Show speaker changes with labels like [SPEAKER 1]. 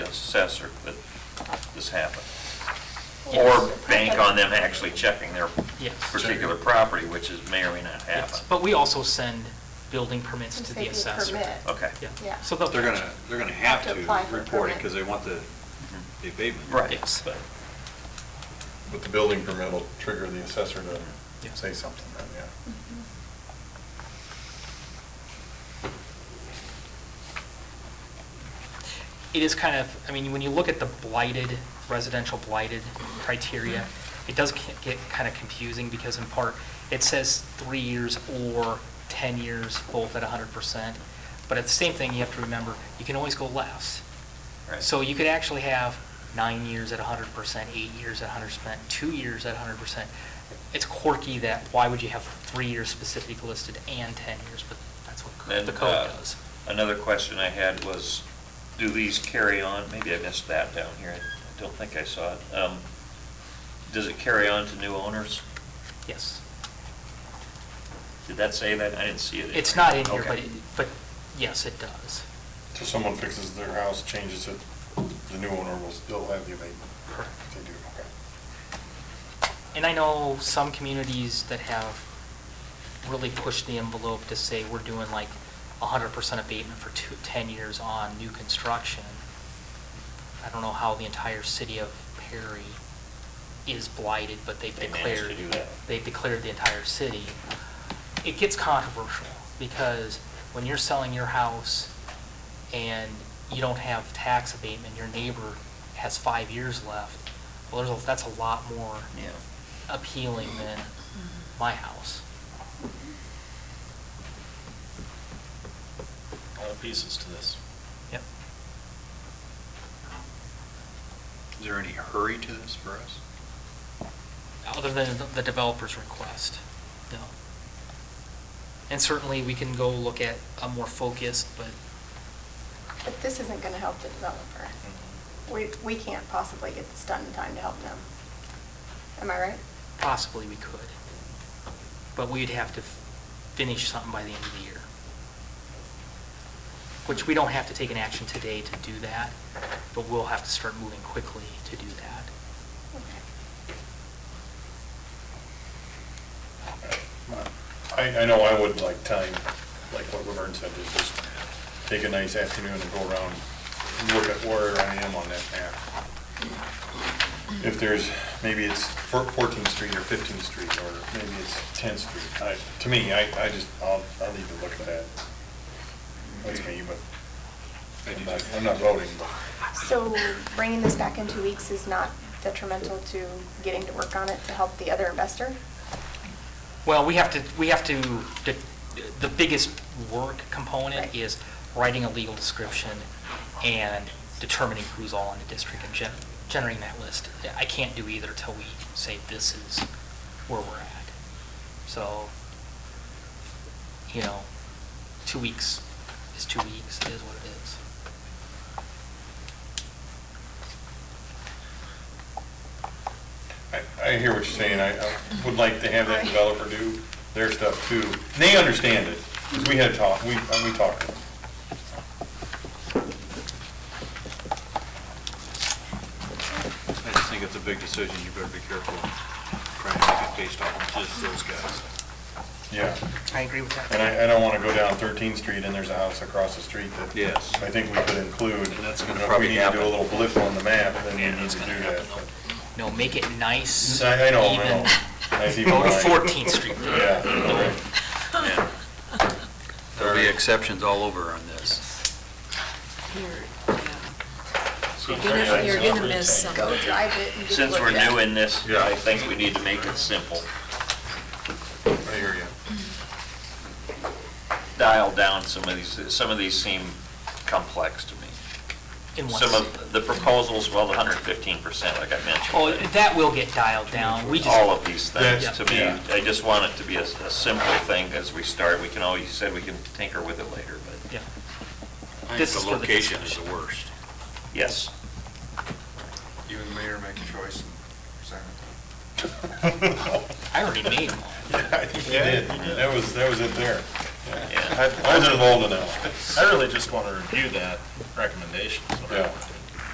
[SPEAKER 1] assessor that this happened. Or bank on them actually checking their
[SPEAKER 2] Yes.
[SPEAKER 1] particular property, which is may or may not happen.
[SPEAKER 2] Yes, But we also send building permits
[SPEAKER 3] Since
[SPEAKER 2] to
[SPEAKER 3] they
[SPEAKER 2] the
[SPEAKER 3] do
[SPEAKER 2] assessor.
[SPEAKER 3] permit.
[SPEAKER 1] Okay.
[SPEAKER 2] Yeah,
[SPEAKER 3] Yeah.
[SPEAKER 2] so they'll.
[SPEAKER 4] They're gonna, they're gonna have
[SPEAKER 3] Have to apply
[SPEAKER 4] to
[SPEAKER 3] for a
[SPEAKER 4] report it
[SPEAKER 3] permit.
[SPEAKER 4] because they want the the abatement.
[SPEAKER 1] Right.
[SPEAKER 2] Yes.
[SPEAKER 1] Mm-hmm. but-
[SPEAKER 5] But the building permit will trigger the assessor to say something, then, yeah.
[SPEAKER 3] Mm-hmm.
[SPEAKER 2] It is kind of, I mean, when you look at the blighted, residential blighted criteria, it does ca- get kind of confusing because in part, it says three years or 10 years, both at 100%. But at the same thing, you have to remember, you can always go less.
[SPEAKER 1] Right.
[SPEAKER 2] So you could actually have nine years at hundred percent, eight years at hundred percent, two years at hundred percent. It's quirky that, why would you have three years specifically listed and ten years, but that's what
[SPEAKER 1] And,
[SPEAKER 2] the
[SPEAKER 1] uh,
[SPEAKER 2] code does.
[SPEAKER 1] Another question I had was, do these carry on? Maybe I missed that down here. I don't think I saw it. Um, Does it carry on to new owners?
[SPEAKER 2] Yes.
[SPEAKER 1] Did that say that? I didn't see it.
[SPEAKER 2] It's not in here,
[SPEAKER 1] Okay.
[SPEAKER 2] but, it- but yes, it does.
[SPEAKER 5] So someone fixes their house, changes it, the new owner will still have the abatement.
[SPEAKER 2] Correct.
[SPEAKER 5] If they do, okay.
[SPEAKER 2] And I know some communities that have really pushed the envelope to say we're doing like hundred percent abatement for two, ten years on new construction. I don't know how the entire city of Perry is blighted, but they've
[SPEAKER 1] They managed to
[SPEAKER 2] declared,
[SPEAKER 1] do that.
[SPEAKER 2] they've declared the entire city. It gets controversial because when you're selling your house and you don't have tax abatement, your neighbor has five years left, well, there's, a- that's a lot more
[SPEAKER 1] Yeah.
[SPEAKER 2] appealing than my house.
[SPEAKER 6] all the pieces to this.
[SPEAKER 2] Yep.
[SPEAKER 4] Is there any hurry to this for us?
[SPEAKER 2] Other than the- the developer's request, no. And certainly, we can go look at a more focused, but
[SPEAKER 3] But this isn't going to help the developer.
[SPEAKER 1] Mm-hmm.
[SPEAKER 3] We, we can't possibly get this done in time to help them. Am I right?
[SPEAKER 2] possibly we could. But we'd have to finish something by the end of the year. Which we don't have to take an action today to do that, but we'll have to start moving quickly to do that.
[SPEAKER 3] Okay.
[SPEAKER 5] I, I know I would like time, like what Laverne said, is just take a nice afternoon and go around and look at where I am on that map. If there's, maybe it's four- 14th Street or 15th Street, or maybe it's 10th Street. I, to me, I, I just, I'll, I'll need to look at that. That's me, but
[SPEAKER 4] I do
[SPEAKER 5] I'm not-
[SPEAKER 4] too.
[SPEAKER 5] I'm not voting, but
[SPEAKER 3] So bringing this back in two weeks is not detrimental to getting to work on it to help the other investor?
[SPEAKER 2] Well, we have to, we have to, the- the biggest work component
[SPEAKER 3] Right.
[SPEAKER 2] is writing a legal description and determining who's all in the district and gen- generating that list. I can't do either till we say this is where we're at. So, you know, two weeks is two weeks, it is what it is.
[SPEAKER 5] I, I hear what you're saying. I, I would like to have that developer do their stuff too. And they understand it, 'cause we had talk, we, uh, we talked.
[SPEAKER 4] I just think it's a big decision, you better be careful trying to make it based off of just those guys.
[SPEAKER 5] Yeah.
[SPEAKER 2] I agree with
[SPEAKER 5] And I, I don't want to go down 13th Street and there's a house across the street that.
[SPEAKER 4] Yes.
[SPEAKER 5] I think we could include.
[SPEAKER 4] And that's gonna
[SPEAKER 5] You know,
[SPEAKER 4] probably
[SPEAKER 5] If we need to do a little blip on the map, then we
[SPEAKER 2] Yeah,
[SPEAKER 5] need
[SPEAKER 2] that's
[SPEAKER 5] to do
[SPEAKER 2] gonna
[SPEAKER 5] that.
[SPEAKER 2] happen, No, make it nice.
[SPEAKER 5] but- I, I know, I
[SPEAKER 2] even.
[SPEAKER 5] know. That's even
[SPEAKER 2] Go to
[SPEAKER 5] mine.
[SPEAKER 2] 14th Street.
[SPEAKER 5] Yeah. all right.
[SPEAKER 1] Yeah.
[SPEAKER 4] There'll be exceptions all over on this.
[SPEAKER 7] You're, yeah. You're gonna, you're gonna miss something.
[SPEAKER 3] Go drive it and just
[SPEAKER 1] Since
[SPEAKER 3] look
[SPEAKER 1] we're
[SPEAKER 3] at it.
[SPEAKER 1] new in this,
[SPEAKER 5] Yeah.
[SPEAKER 1] I think we need to make it simple.
[SPEAKER 5] I hear you.
[SPEAKER 1] Dial down some of these, some of these seem complex to me.
[SPEAKER 2] in one
[SPEAKER 1] Some
[SPEAKER 2] city.
[SPEAKER 1] of the proposals, well, the 115%, like I mentioned.
[SPEAKER 2] Oh, that will get dialed down. uh, We just.
[SPEAKER 1] all of these things,
[SPEAKER 2] Yeah.
[SPEAKER 1] to me, I just want it to be a, a simple thing as we start, we can always, you said we can tinker with it later, but,
[SPEAKER 2] Yeah.
[SPEAKER 4] I think
[SPEAKER 2] This is
[SPEAKER 4] the
[SPEAKER 2] for the
[SPEAKER 4] location is
[SPEAKER 2] discussion.
[SPEAKER 4] the worst.
[SPEAKER 1] yes.
[SPEAKER 8] You and the mayor make a choice and present
[SPEAKER 2] I already made one.
[SPEAKER 5] I think you did. That was, that was it there.
[SPEAKER 1] Yeah.
[SPEAKER 5] I I was involved in that.
[SPEAKER 8] it. I really just want to review that recommendation. is what I
[SPEAKER 5] Yeah.
[SPEAKER 8] want to do.